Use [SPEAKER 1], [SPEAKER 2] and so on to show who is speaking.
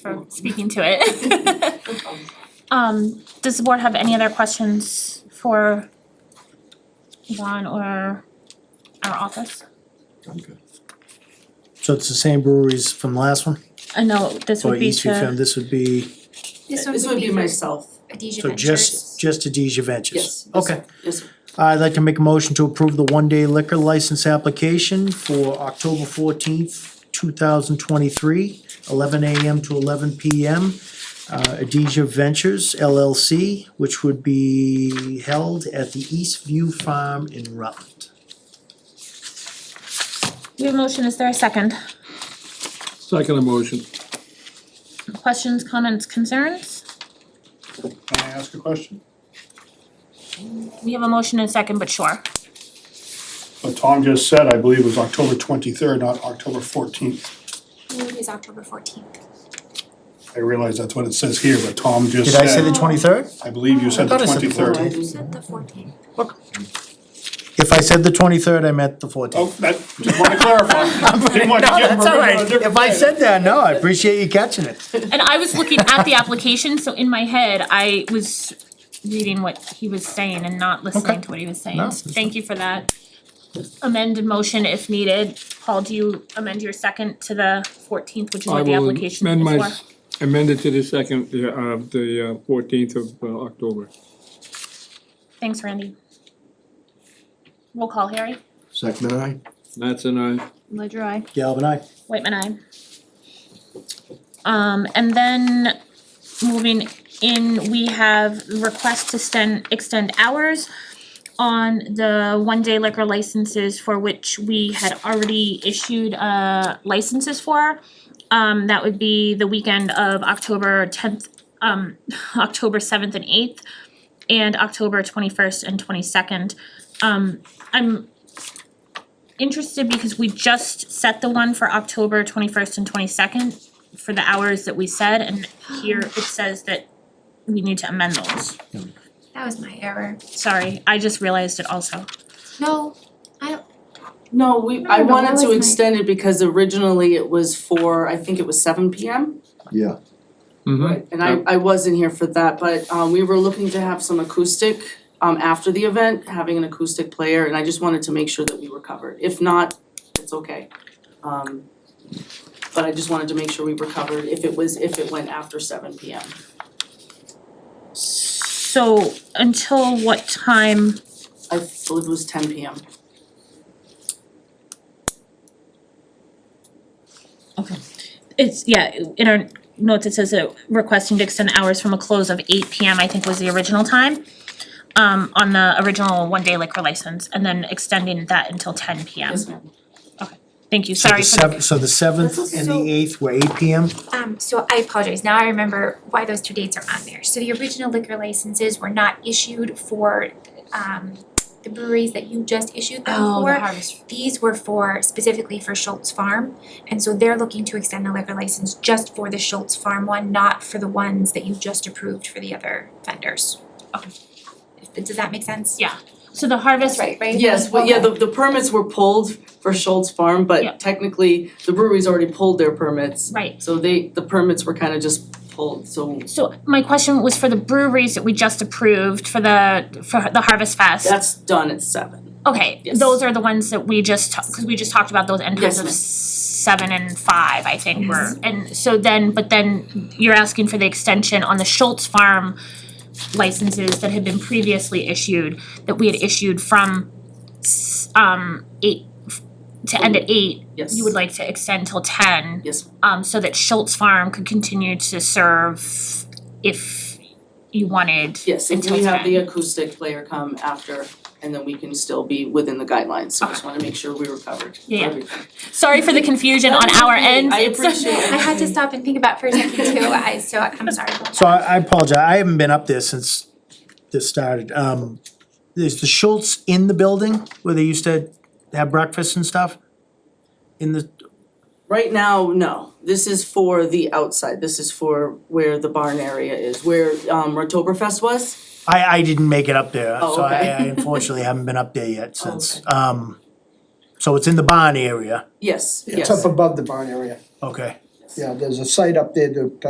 [SPEAKER 1] for speaking to it. Um, does the board have any other questions for Yvonne or our office?
[SPEAKER 2] I'm good.
[SPEAKER 3] So it's the same breweries from the last one?
[SPEAKER 1] I know Uh, this
[SPEAKER 3] Or E
[SPEAKER 1] would be
[SPEAKER 3] East Fifth,
[SPEAKER 1] to,
[SPEAKER 3] this would be,
[SPEAKER 4] This
[SPEAKER 5] This would be
[SPEAKER 4] for
[SPEAKER 5] myself,
[SPEAKER 4] Adesia
[SPEAKER 3] so just, just Adesia Ventures?
[SPEAKER 5] yes. yes,
[SPEAKER 3] Okay.
[SPEAKER 5] Yes, sir.
[SPEAKER 3] I'd like to make a motion to approve the one-day liquor license application for October fourteenth, two thousand twenty-three, eleven AM to eleven PM. Uh, Adesia Ventures LLC, which would be held at the East View Farm in Rutland.
[SPEAKER 1] we have a motion, is there a second?
[SPEAKER 2] Second motion.
[SPEAKER 1] Questions, comments, concerns?
[SPEAKER 6] Can I ask a question?
[SPEAKER 1] We have a motion and a second, but sure.
[SPEAKER 6] What Tom just said, I believe, was October twenty-third, not October fourteenth.
[SPEAKER 4] It is October fourteenth.
[SPEAKER 6] I realize that's what it says here, but Tom just
[SPEAKER 3] Did I say the
[SPEAKER 6] said,
[SPEAKER 3] twenty-third?
[SPEAKER 6] I believe you said the
[SPEAKER 3] I thought I said the
[SPEAKER 6] twenty-third.
[SPEAKER 5] 14th.
[SPEAKER 4] You said the fourteenth.
[SPEAKER 3] If I said the twenty-third, I meant the fourteenth.
[SPEAKER 6] Oh, that, just wanna clarify. Didn't want to give him a ring on a different
[SPEAKER 3] If I
[SPEAKER 6] day.
[SPEAKER 3] said that, no, I appreciate you catching it.
[SPEAKER 1] And I was looking at the application, so in my head, I was reading what he was saying and not listening
[SPEAKER 3] Okay.
[SPEAKER 1] to what he was saying.
[SPEAKER 3] No, that's
[SPEAKER 1] Thank you for that. Amended motion if needed. Paul, do you amend your second to the fourteenth, which is
[SPEAKER 7] I
[SPEAKER 1] what the
[SPEAKER 7] will
[SPEAKER 1] application is for?
[SPEAKER 7] amend my, amend it to the second, uh, of the fourteenth of uh, October.
[SPEAKER 1] Thanks, Randy. Roll call, Harry.
[SPEAKER 2] Second and I.
[SPEAKER 7] That's an I.
[SPEAKER 8] Ledger I.
[SPEAKER 3] Galvin, I.
[SPEAKER 1] Whitman, aye. Um, and then moving in, we have request to extend, extend hours on the one-day liquor licenses for which we had already issued, uh, licenses for. Um, that would be the weekend of October tenth, um, October seventh and eighth, and October twenty-first and twenty-second. Um, I'm interested because we just set the one for October twenty first and twenty second for the hours that we said, and here it says that we need to amend those.
[SPEAKER 4] That was my error.
[SPEAKER 1] Sorry, I just realized it also.
[SPEAKER 4] No,
[SPEAKER 5] No, we,
[SPEAKER 4] No,
[SPEAKER 5] I
[SPEAKER 4] no,
[SPEAKER 5] wanted
[SPEAKER 4] that
[SPEAKER 5] to
[SPEAKER 4] was my-
[SPEAKER 5] extend it because originally it was for, I think it was seven P M.
[SPEAKER 2] Yeah,
[SPEAKER 5] Right. And I I wasn't here for that, but um we were looking to have some acoustic um after the event, having an acoustic player, and I just wanted to make sure that we were covered. If not, it's okay. Um but I just wanted to make sure we were covered if it was, if it went after seven P M.
[SPEAKER 1] So until what time,
[SPEAKER 5] I believe it was ten P M.
[SPEAKER 1] it's, yeah, in our notes, it says that requesting to extend hours from a close of eight P M, I think was the original time. Um, on the original one day liquor license, and then extending that until ten P M.
[SPEAKER 5] Yes, ma'am.
[SPEAKER 1] Thank you,
[SPEAKER 3] So
[SPEAKER 1] sorry
[SPEAKER 3] the
[SPEAKER 1] for the,
[SPEAKER 3] seventh, so the seventh and
[SPEAKER 4] So-
[SPEAKER 3] the eighth were eight PM?
[SPEAKER 4] um, so I apologize, now I remember why those two dates are on there. So the original liquor licenses were not issued for, um, the breweries that you just issued them for.
[SPEAKER 5] harvest.
[SPEAKER 4] These were for, specifically for Schultz Farm, and so they're looking to extend the liquor license just for the Schultz Farm one, not for the ones that you just approved for the other vendors.
[SPEAKER 1] Okay.
[SPEAKER 4] If- Does that make sense?
[SPEAKER 1] Yeah. so the harvest
[SPEAKER 4] That's right, right?
[SPEAKER 5] Yes, but yeah,
[SPEAKER 4] Okay.
[SPEAKER 5] the the permits were pulled for Schultz Farm,
[SPEAKER 1] Yeah.
[SPEAKER 5] but technically the breweries already pulled their permits.
[SPEAKER 1] Right,
[SPEAKER 5] So they, the permits were kind of just pulled, so
[SPEAKER 1] so my question was for the breweries that we just approved for the, for the Harvest Fest.
[SPEAKER 5] that's done at seven.
[SPEAKER 1] Okay,
[SPEAKER 5] Yes.
[SPEAKER 1] those are the ones that we just, ta- cause we just talked about those end times
[SPEAKER 5] Yes,
[SPEAKER 1] of
[SPEAKER 5] ma'am. Mm-hmm.
[SPEAKER 1] seven and five, I think were. And so then, but then you're asking for the extension on the Schultz Farm licenses that had been previously issued, that we had issued from s- um eight, to end at eight,
[SPEAKER 5] Yes.
[SPEAKER 1] you would like to extend till ten.
[SPEAKER 5] Yes,
[SPEAKER 1] um so that Schultz Farm could continue to serve if you wanted.
[SPEAKER 5] yes, and we
[SPEAKER 1] Until
[SPEAKER 5] have the
[SPEAKER 1] 10.
[SPEAKER 5] acoustic player come after, and then we can still be within the guidelines, so I just wanna make sure we were covered for
[SPEAKER 1] Yeah, yeah.
[SPEAKER 5] everything.
[SPEAKER 1] Sorry for the confusion on our end.
[SPEAKER 5] I
[SPEAKER 1] It's-
[SPEAKER 5] appreciate it.
[SPEAKER 4] I had to stop and think about it for a second too, I, so I'm sorry about
[SPEAKER 3] So I, I apologize, I haven't been up there since this started. Um, is the Schultz in the building where they used to have breakfast and stuff? In the,
[SPEAKER 5] Right now, no, this is for the outside, this is for where the barn area is, where um Rotoberfest was.
[SPEAKER 3] I, I didn't make it up there,
[SPEAKER 5] Oh,
[SPEAKER 3] so I,
[SPEAKER 5] okay.
[SPEAKER 3] I unfortunately haven't been up there yet
[SPEAKER 5] Oh,
[SPEAKER 3] since.
[SPEAKER 5] okay.
[SPEAKER 3] Um, so it's in the barn area,
[SPEAKER 5] Yes, yes.
[SPEAKER 9] It's up above the barn area.
[SPEAKER 3] okay.
[SPEAKER 9] Yeah, there's a site up there that uh,